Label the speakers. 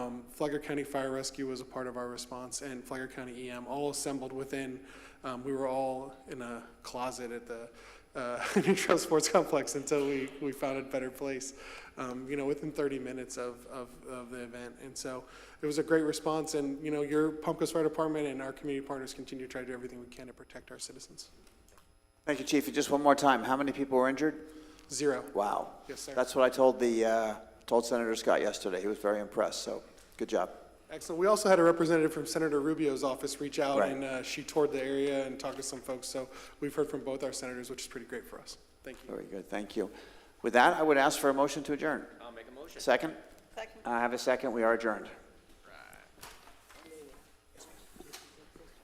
Speaker 1: Um, Flagler County Fire Rescue was a part of our response, and Flagler County EM, all assembled within, um, we were all in a closet at the uh, New Trail Sports Complex until we, we found a better place, um, you know, within 30 minutes of, of, of the event. And so it was a great response, and, you know, your Palmcoast Fire Department and our community partners continue to try to do everything we can to protect our citizens.
Speaker 2: Thank you, Chief. Just one more time, how many people were injured?
Speaker 1: Zero.
Speaker 2: Wow.
Speaker 1: Yes, sir.
Speaker 2: That's what I told the, uh, told Senator Scott yesterday. He was very impressed, so good job.
Speaker 1: Excellent. We also had a representative from Senator Rubio's office reach out,
Speaker 2: Right.
Speaker 1: and uh, she toured the area and talked to some folks. So we've heard from both our senators, which is pretty great for us. Thank you.
Speaker 2: Very good, thank you. With that, I would ask for a motion to adjourn.
Speaker 3: I'll make a motion.
Speaker 2: Second?
Speaker 4: Second.
Speaker 2: I have a second, we are adjourned.